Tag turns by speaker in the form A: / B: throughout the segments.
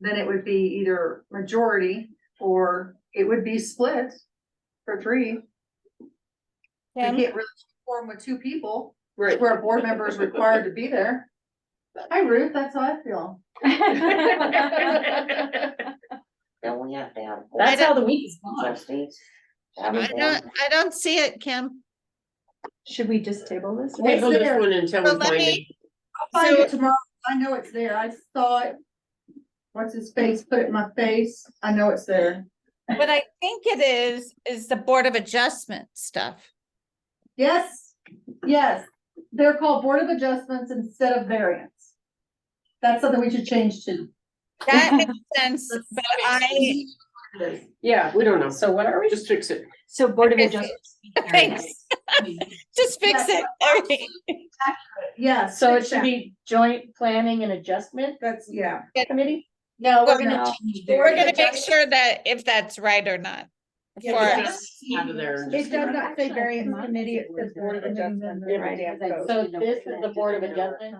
A: then it would be either majority or it would be split for three. We
B: Tim?
A: can't really form with two people,
C: Right.
A: where a board member is required to be there. Hi Ruth, that's how I feel.
D: Don't we have to have?
C: That's how
D: the week is gone. Trustees.
E: I don't, I don't see it, Kim.
B: Should we just table this?
C: Table
A: there.
C: this one
E: But
C: until we
E: let
C: find it.
E: me-
A: I'll find it tomorrow. I know it's there. I saw it. What's his face? Put it in my face. I know it's there.
E: What I think it is, is the Board of Adjustment stuff.
A: Yes, yes. They're called Board of Adjustments instead of variance. That's something we should change to.
E: That makes sense, but I,
C: Yeah, we don't know.
D: So what are we?
C: Just fix it.
B: So Board of
E: Okay.
B: Adjustments.
E: Thanks. just fix it, everything.
A: Yes.
D: So it should be joint planning and adjustment
A: That's, yeah.
D: committee?
B: No,
E: we're
B: we're
E: gonna
B: gonna
D: No.
B: change.
E: We're gonna make sure that if that's right or not.
C: Yeah,
E: For-
C: but just Out of there. and
A: It
C: just-
A: does not say variance committee, it says Board of Adjustment.
D: So this is the Board of Adjustment?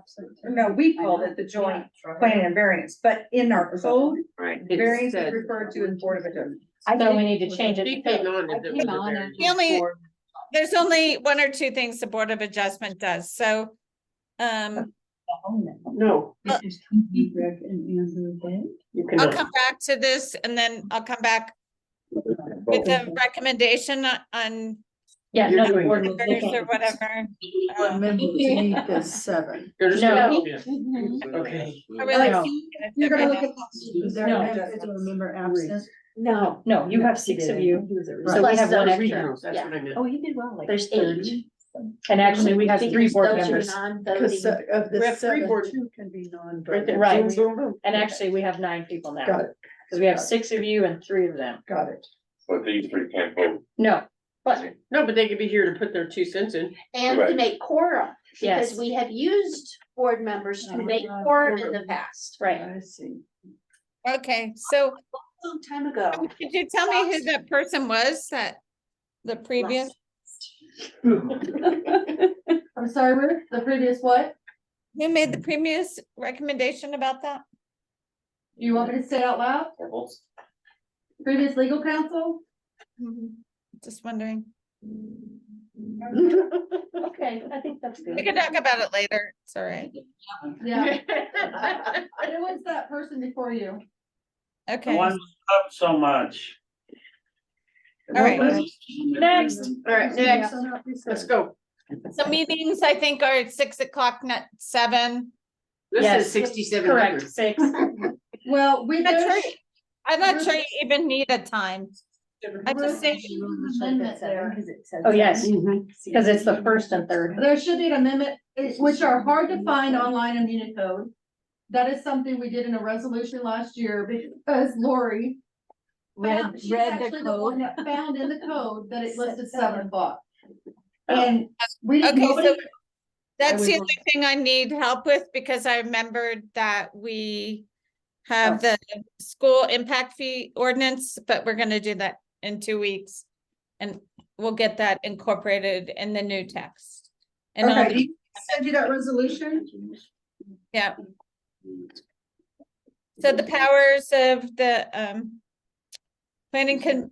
A: No, we called it the joint planning and variance, but in our code,
C: Right. it
A: variance is
C: said-
A: referred to as Board of Adjustment.
D: So we need to change it.
C: She
D: to
C: came
D: fix.
C: on. and it was a variance.
E: The only, there's only one or two things the Board of Adjustment does, so. Um,
C: No, you
E: I'll
C: cannot.
E: come back to this and then I'll come back with a recommendation on- on
D: Yeah.
C: You're
D: no, the
C: doing
D: board will
E: orders
D: look
E: or
D: at-
E: whatever. Um,
A: seven.
C: You're just
D: No.
C: gonna- yeah. Okay.
E: I really
F: No.
E: think that
A: You're gonna
E: they're
A: look
E: gonna-
A: at.
D: No.
F: Remember absent.
B: No,
D: No,
B: you have six of you.
D: So we
B: Plus
D: have one
B: those
D: extra.
C: Regionals, that's
D: Yeah.
C: what I meant.
B: Oh, you did well. like
D: There's
B: 30.
D: eight. And actually, we have three board
B: Those are
D: members. uh,
B: non-voting.
F: of
C: We have three board,
F: can be
C: right
F: non-voting.
C: there.
D: Right.
C: Boom, boom, boom.
D: And actually, we have nine people now.
F: Got it,
D: Cause we have six of you and three of them.
F: got it.
G: But these three can't vote.
D: No, but
C: No, but they could be here to put their two cents in.
B: And to
G: Right.
B: make quorum, because
D: yes, Oh
B: we have used board members to make quorum in the past,
D: right.
F: I see.
E: Okay, so
B: a long time ago.
E: could you tell me who that person was that the previous,
A: I'm sorry, Ruth, the previous what?
E: who made the previous recommendation about that?
A: You want me to say it out loud? Previous legal counsel?
E: Mm-hmm. Just wondering.
A: Mm,
D: Okay, I think that's
E: We
D: good.
E: can talk about it later. It's all right.
A: Yeah. Who was that person before you?
E: Okay,
H: Why
E: all
H: was up so much?
E: right.
D: Next.
C: All right, next, let's go.
E: So meetings, I think, are at six o'clock, not seven.
C: This
D: Yes.
C: is sixty-seven
D: Correct,
C: hundred.
D: six.
A: Well, we.
E: I'm not
A: know-
E: sure- I'm not sure you even need a time. I just think,
A: Amendment there.
D: Oh, yes,
C: Mhm.
D: cause it's the first and third.
A: There should be an amendment, eh, which are hard to find online in Unicode. That is something we did in a resolution last year because Lori. found-
B: Read-
A: she's
B: read the
A: actually one
B: code.
A: that Found in the code that it listed
B: Said seven.
A: seven o'clock.
C: Oh.
A: And we didn't,
E: Okay, so-
A: nobody,
E: that's the
A: would
E: only thing I need help with because I remembered that we have the school impact fee ordinance, but we're gonna do that in two weeks. And we'll get that incorporated in the new text. And I'll-
A: okay, you send you that resolution?
E: yeah, so the powers of the um planning con-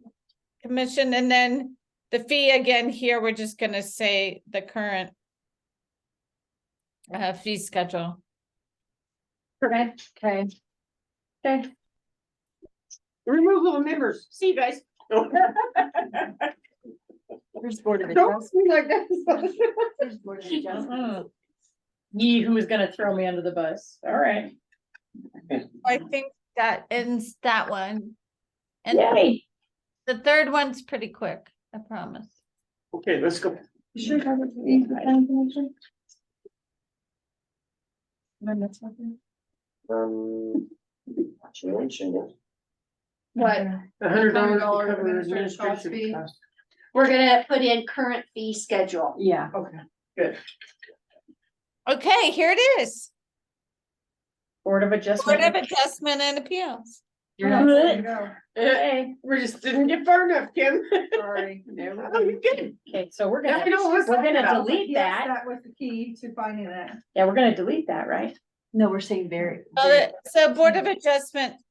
E: commission and then the fee again here, we're just gonna say the current uh fee schedule.
D: Okay. Okay. Okay.
C: Oh, Removal of members. See you guys. Don't
B: There's board of
C: see me like that.
B: adjustment.
D: Mhm. Ye who is gonna throw me under the bus, all right.
E: I think that ends that one. And
D: Yay.
E: the third one's pretty quick, I promise.
C: Okay, let's go.
G: Um, she mentioned it.
A: What?
C: A hundred dollars to
A: $100
C: cover
A: administrative cost fee.
C: administration costs.
B: We're gonna put in current fee schedule.
D: Yeah.
C: Okay.
E: Okay, here it is,
D: Board of
E: Board of
D: Adjustment.
E: Adjustment and Appeals.
D: Blech.
C: Eh,
D: Okay,
C: We just didn't get far enough, Kim.
A: Sorry.
C: Oh, you're good.
D: Okay, so we're
C: Now
D: gonna,
C: we know what's
D: we're
C: talking
D: gonna
C: about.
D: delete
A: Yes,
D: that,
A: that was the key to finding that.
D: yeah, we're gonna delete that, right?
B: No, we're saying very.
E: Uh, So Oh, Board of Adjustment